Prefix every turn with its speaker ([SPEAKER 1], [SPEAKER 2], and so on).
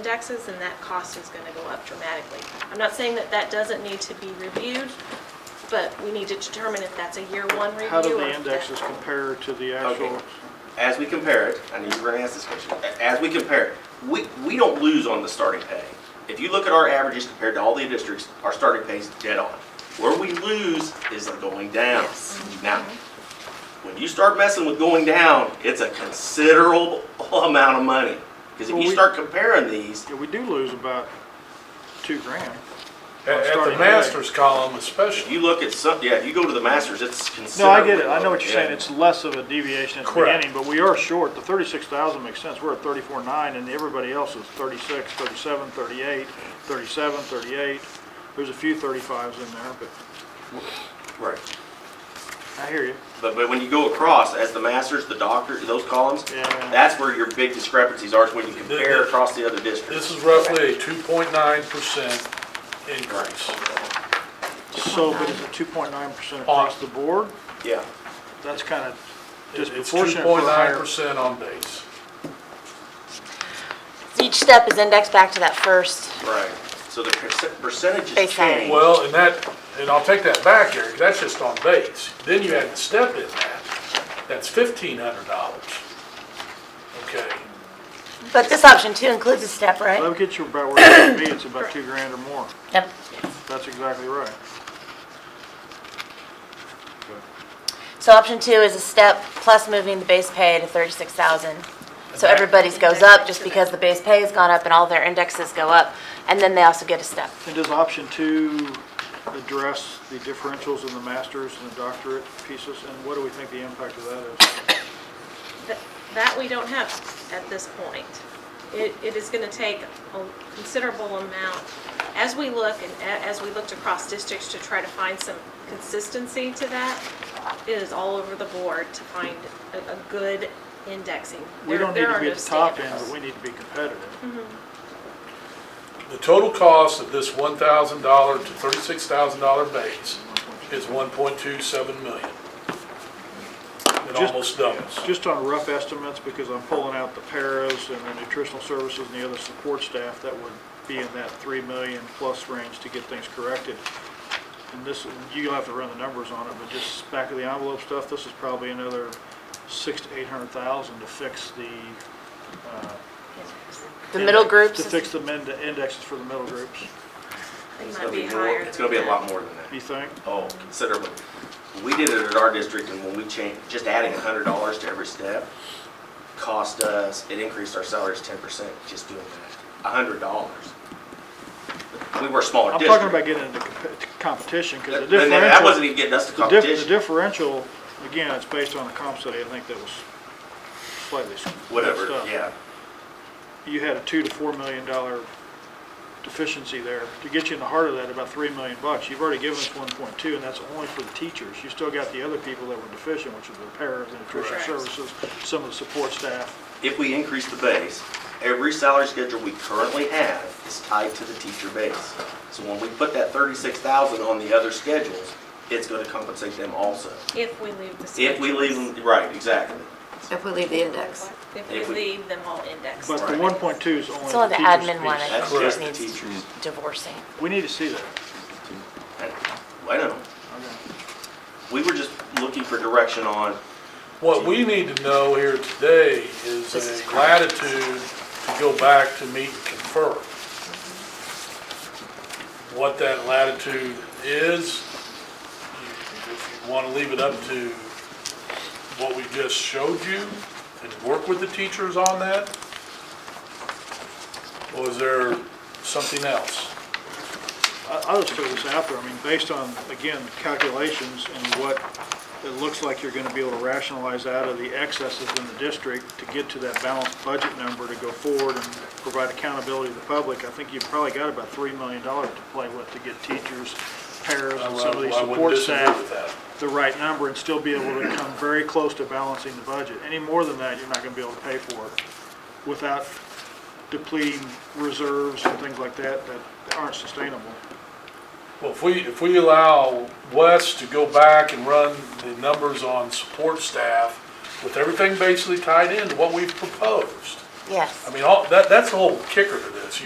[SPEAKER 1] indexes, then that cost is going to go up dramatically. I'm not saying that that doesn't need to be reviewed, but we need to determine if that's a year one review.
[SPEAKER 2] How do
[SPEAKER 1] or
[SPEAKER 2] the
[SPEAKER 1] if
[SPEAKER 2] indexes
[SPEAKER 1] that-
[SPEAKER 2] compare to the
[SPEAKER 3] Okay.
[SPEAKER 2] actual?
[SPEAKER 3] As we compare it, I knew you were gonna ask this question, A- as we compare, it, we, we don't lose on the starting pay. If you look at our averages compared to all the districts, our starting pay's dead on. Where we lose is the going down.
[SPEAKER 1] Yes.
[SPEAKER 3] Now, when you start messing with going down, it's a considerable amount of money. Because if
[SPEAKER 2] Well,
[SPEAKER 3] you
[SPEAKER 2] we-
[SPEAKER 3] start comparing these,
[SPEAKER 2] Yeah, we do lose about two grand.
[SPEAKER 4] At- At the
[SPEAKER 2] Starting
[SPEAKER 4] master's column especially,
[SPEAKER 3] you look at some, yeah, if you go to the masters, it's
[SPEAKER 2] No,
[SPEAKER 3] considerable.
[SPEAKER 2] I get it, I know what you're saying,
[SPEAKER 3] Yeah.
[SPEAKER 2] it's less of a deviation at the
[SPEAKER 4] Correct.
[SPEAKER 2] beginning, but we are short, the thirty-six thousand makes sense, we're at thirty-four nine, and everybody else is thirty-six, thirty-seven, thirty-eight, thirty-seven, thirty-eight, there's a few thirty-fives in there, but
[SPEAKER 3] Right.
[SPEAKER 2] I hear you.
[SPEAKER 3] But, but when you go across, as the masters, the doctor, those columns,
[SPEAKER 2] Yeah.
[SPEAKER 3] that's where your big discrepancies are, is when you compare across the other districts.
[SPEAKER 4] this is roughly a two point nine percent increase.
[SPEAKER 2] So, but it's a two point nine percent across the board,
[SPEAKER 3] Yeah,
[SPEAKER 2] that's kind of
[SPEAKER 4] It's two
[SPEAKER 2] disproportionate for a
[SPEAKER 4] point nine
[SPEAKER 2] higher.
[SPEAKER 4] percent on base.
[SPEAKER 5] Each step is indexed back to that first.
[SPEAKER 3] right. So the perc- percentages
[SPEAKER 5] Base salary.
[SPEAKER 3] change.
[SPEAKER 4] Well, and that, and I'll take that back, Eric, that's just on base. Then you add the step in that, that's fifteen hundred dollars. Okay,
[SPEAKER 5] But this option two includes a step, right?
[SPEAKER 2] That'll get you about where you want to be, it's about two grand or more,
[SPEAKER 5] Yep.
[SPEAKER 2] that's exactly right.
[SPEAKER 5] So option two is a step plus moving the base pay to thirty-six thousand. So everybody's goes up just because the base pay has gone up and all their indexes go up, and then they also get a step.
[SPEAKER 2] And does option two address the differentials in the masters and the doctorate pieces, and what do we think the impact of that is?
[SPEAKER 1] That- That we don't have at this point. It, it is going to take a considerable amount, as we look and a- as we looked across districts to try to find some consistency to that, it is all over the board to find a, a good indexing.
[SPEAKER 2] We
[SPEAKER 1] There-
[SPEAKER 2] don't need
[SPEAKER 1] there
[SPEAKER 2] to
[SPEAKER 1] are
[SPEAKER 2] be
[SPEAKER 1] no
[SPEAKER 2] at the top end,
[SPEAKER 1] standards.
[SPEAKER 2] but we need to be
[SPEAKER 5] Mm-hmm.
[SPEAKER 2] competitive.
[SPEAKER 4] the total cost of this one thousand dollar to thirty-six thousand dollar base is one point two seven million. It
[SPEAKER 2] Just-
[SPEAKER 4] almost doubles.
[SPEAKER 2] Just on rough estimates, because I'm pulling out the paras and the nutritional services and the other support staff that would be in that three million plus range to get things corrected. And this, you'll have to run the numbers on it, but just back of the envelope stuff, this is probably another six to eight hundred thousand to fix the
[SPEAKER 5] The middle groups,
[SPEAKER 2] To
[SPEAKER 5] is-
[SPEAKER 2] fix the men- the indexes for the middle groups,
[SPEAKER 1] It
[SPEAKER 3] It's
[SPEAKER 1] might
[SPEAKER 3] gonna
[SPEAKER 1] be
[SPEAKER 3] be more,
[SPEAKER 1] higher
[SPEAKER 3] it's
[SPEAKER 1] than
[SPEAKER 3] gonna be a
[SPEAKER 1] that.
[SPEAKER 3] lot more than that.
[SPEAKER 2] you think?
[SPEAKER 3] Oh, considerably. We did it at our district and when we changed, just adding hundred dollars to every step cost us, it increased our salaries ten percent just doing that. hundred dollars. We were a smaller
[SPEAKER 2] I'm
[SPEAKER 3] district.
[SPEAKER 2] talking about getting into comp- competition, because the
[SPEAKER 3] And then that wasn't
[SPEAKER 2] differential,
[SPEAKER 3] even getting us to
[SPEAKER 2] the dif- the
[SPEAKER 3] competition,
[SPEAKER 2] differential, again, it's based on the comp study, I think that was slightly s-
[SPEAKER 3] whatever,
[SPEAKER 2] messed up.
[SPEAKER 3] yeah.
[SPEAKER 2] You had a two to four million dollar deficiency there. To get you in the heart of that, about three million bucks, you've already given us one point two, and that's only for the teachers. You still got the other people that were deficient, which is the paras, the nutrition
[SPEAKER 1] Correct.
[SPEAKER 2] services, some of the support staff.
[SPEAKER 3] if we increase the base, every salary schedule we currently have is tied to the teacher base. So when we put that thirty-six thousand on the other schedules, it's gonna compensate them also.
[SPEAKER 1] If we leave the
[SPEAKER 3] If we leave
[SPEAKER 1] schedules.
[SPEAKER 3] them, right, exactly.
[SPEAKER 6] If we leave the index.
[SPEAKER 1] If
[SPEAKER 3] if
[SPEAKER 1] we
[SPEAKER 3] we-
[SPEAKER 1] leave them all indexed.
[SPEAKER 2] But the
[SPEAKER 3] Right.
[SPEAKER 2] one point two is only
[SPEAKER 5] it's
[SPEAKER 2] the
[SPEAKER 5] only the
[SPEAKER 2] teachers'
[SPEAKER 5] admin one,
[SPEAKER 2] piece.
[SPEAKER 5] I
[SPEAKER 3] That's
[SPEAKER 5] think,
[SPEAKER 3] just
[SPEAKER 5] just
[SPEAKER 3] the
[SPEAKER 5] needs
[SPEAKER 3] teachers.
[SPEAKER 5] divorcing.
[SPEAKER 2] We need to see that.
[SPEAKER 3] I know. We were just looking for direction on,
[SPEAKER 4] What we need to know here today is
[SPEAKER 5] This is
[SPEAKER 4] a
[SPEAKER 5] correct.
[SPEAKER 4] latitude to go back to meet and confer. What that latitude is, if you want to leave it up to what we just showed you and work with the teachers on that? Or is there something else?
[SPEAKER 2] I- I'll just throw this out there, I mean, based on, again, calculations and what it looks like you're gonna be able to rationalize out of the excesses in the district to get to that balanced budget number to go forward and provide accountability to the public, I think you've probably got about three million dollars to play with to get teachers, pairs, and some of these
[SPEAKER 4] I wouldn't
[SPEAKER 2] support
[SPEAKER 4] disagree
[SPEAKER 2] staff
[SPEAKER 4] with that.
[SPEAKER 2] the right number and still be able to come very close to balancing the budget. Any more than that, you're not gonna be able to pay for it without depleting reserves and things like that that aren't sustainable.
[SPEAKER 4] Well, if we, if we allow Wes to go back and run the numbers on support staff with everything basically tied into what we've proposed,
[SPEAKER 5] Yes.
[SPEAKER 4] I mean, all, that, that's the whole kicker to this.